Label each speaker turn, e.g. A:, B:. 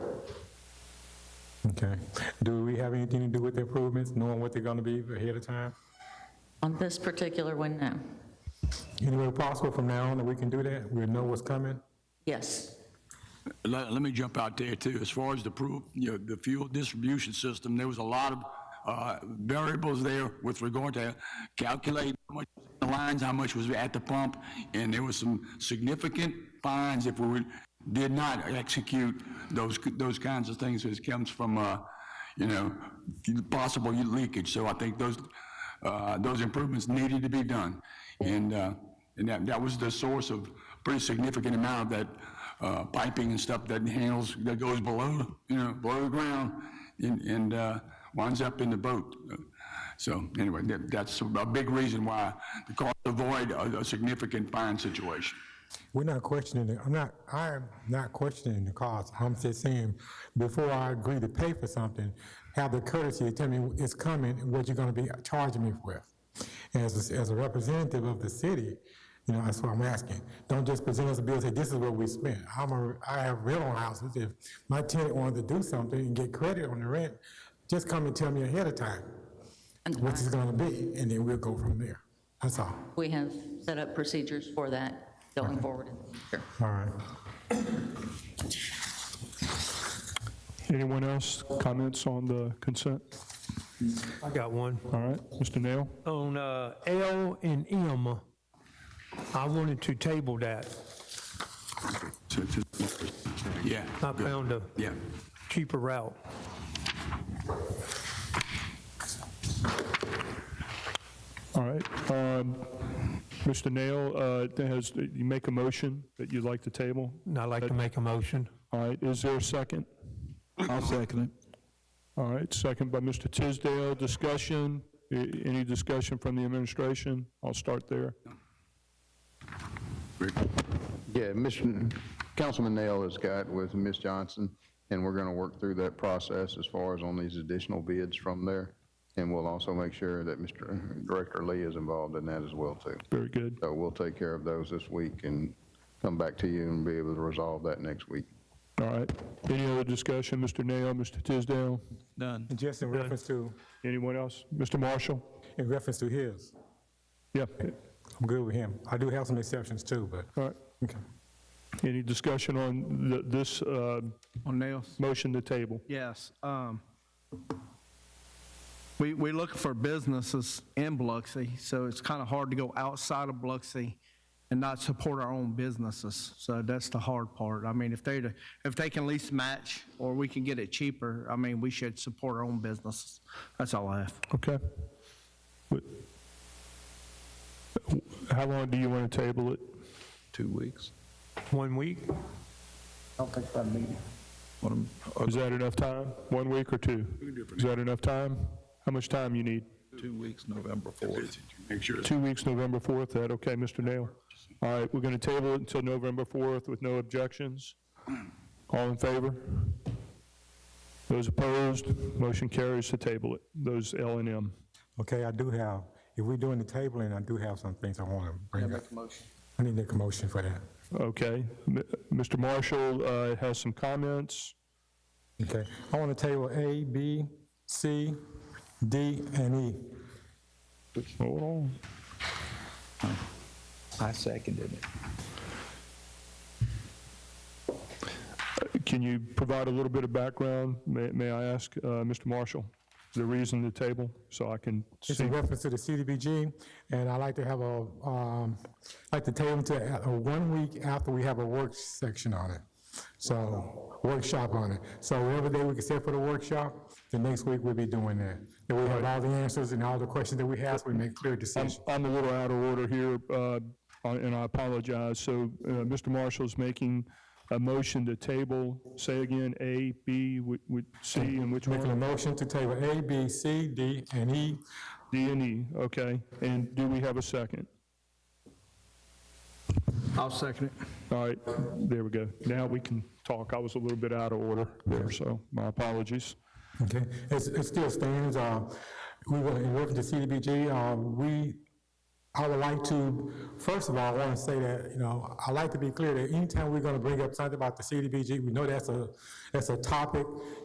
A: Okay. Do we have anything to do with the improvements, knowing what they're gonna be ahead of time?
B: On this particular one, no.
A: Any way possible from now on that we can do that? We'll know what's coming?
B: Yes,
C: Let, let me jump out there too. As far as the proof, you know, the fuel distribution system, there was a lot of uh, variables there with regard to calculating how much was in the lines, how much was at the pump, and there was some significant fines if we were, did not execute those, those kinds of things. It comes from, uh, you know, possible leakage. So I think those, uh, those improvements needed to be done. And, uh, and that, that was the source of pretty significant amount of that uh, piping and stuff that handles, that goes below, you know, below the ground and, and uh, winds up in the boat. So anyway, that, that's a big reason why the cost avoid a, a significant fine situation.
A: We're not questioning, it. I'm not, I am not questioning the cost. I'm just saying, before I agree to pay for something, have the courtesy to tell me it's coming and what you're gonna be charging me with. As, a- as a representative of the city, you know, that's what I'm asking. Don't just present us a bill and say, this is what we spent. I'm a, I have rental houses. If my tenant wanted to do something and get credit on the rent, just come and tell me ahead of time what it's gonna be, and then we'll go from there. That's all.
B: we have set up procedures for that going forward in the future.
A: All right.
D: Anyone else comments on the consent?
E: I got one.
D: All right, Mr. Nail?
E: On uh, L and M, I wanted to table that.
C: So it's just- Yeah,
E: I found a
C: yeah.
E: cheaper route.
D: All right. um, Mr. Nail, uh, that has, you make a motion that you'd like to table?
E: And I'd like to make a motion.
D: All right, is there a second?
F: I'll second it.
D: All right, second by Mr. Tisdale. Discussion? A- Any discussion from the administration? I'll start there.
G: Yeah, Mr. Councilman Nail has got with Ms. Johnson, and we're going to work through that process as far as on these additional bids from there. And we'll also make sure that Mr. Director Lee is involved in that as well, too.
D: Very good.
G: So we'll take care of those this week and come back to you and be able to resolve that next week.
D: All right. Any other discussion, Mr. Nail, Mr. Tisdale?
F: Done.
A: And just in reference to,
D: Anyone else? Mr. Marshall?
A: in reference to his,
D: Yeah,
A: I'm good with him. I do have some exceptions too, but,
D: all right.
A: okay.
D: Any discussion on th- this uh,
F: On nails?
D: motion to table?
F: Yes. um, We, we look for businesses in Biloxi, so it's kind of hard to go outside of Biloxi and not support our own businesses. So that's the hard part. I mean, if they, if they can lease match or we can get it cheaper, I mean, we should support our own businesses. That's all I have.
D: Okay. But- How long do you want to table it?
H: two weeks.
E: One week?
H: What am- uh,
D: Is that enough time? One week or two? Is that enough time? How much time you need?
H: Two weeks, November 4th.
C: Make sure it's
D: Two weeks, November 4th, that okay, Mr. Nail? All right, we're going to table it until November 4th with no objections. All in favor? Those opposed? Motion carries to table it, those L and M.
A: Okay, I do have, if we're doing the tabling, I do have some things I want to bring up.
F: motion.
A: I need to make a motion for that.
D: Okay, M- Mr. Marshall uh, has some comments.
A: Okay, I want to table A, B, C, D, and E.
D: Hold on.
H: I seconded it.
D: Can you provide a little bit of background? May may I ask, uh, Mr. Marshall, the reason to table, so I can
A: It's in
D: see?
A: reference to the CDBG, and I like to have a, um, like to table to a- a one week after we have a work section on it. So, workshop on it. So whatever day we can set for the workshop, the next week we'll be doing that. Then we have all the answers and all the questions that we ask, we make clear
D: I'm
A: decisions.
D: I'm a little out of order here, uh, and I apologize. So uh, Mr. Marshall's making a motion to table, say again, A, B, whi- whi- C, and which
A: Making a
D: one?
A: motion to table A, B, C, D, and E.
D: D and E, okay. And do we have a second?
F: I'll second it.
D: All right, there we go. Now we can talk. I was a little bit out of order there, so my apologies.
A: Okay, it's, it still stands, uh, we were working to CDBG, uh, we, I would like to, first of all, I want to say that, you know, I like to be clear that anytime we're going to bring up something about the CDBG, we know that's a, that's a topic,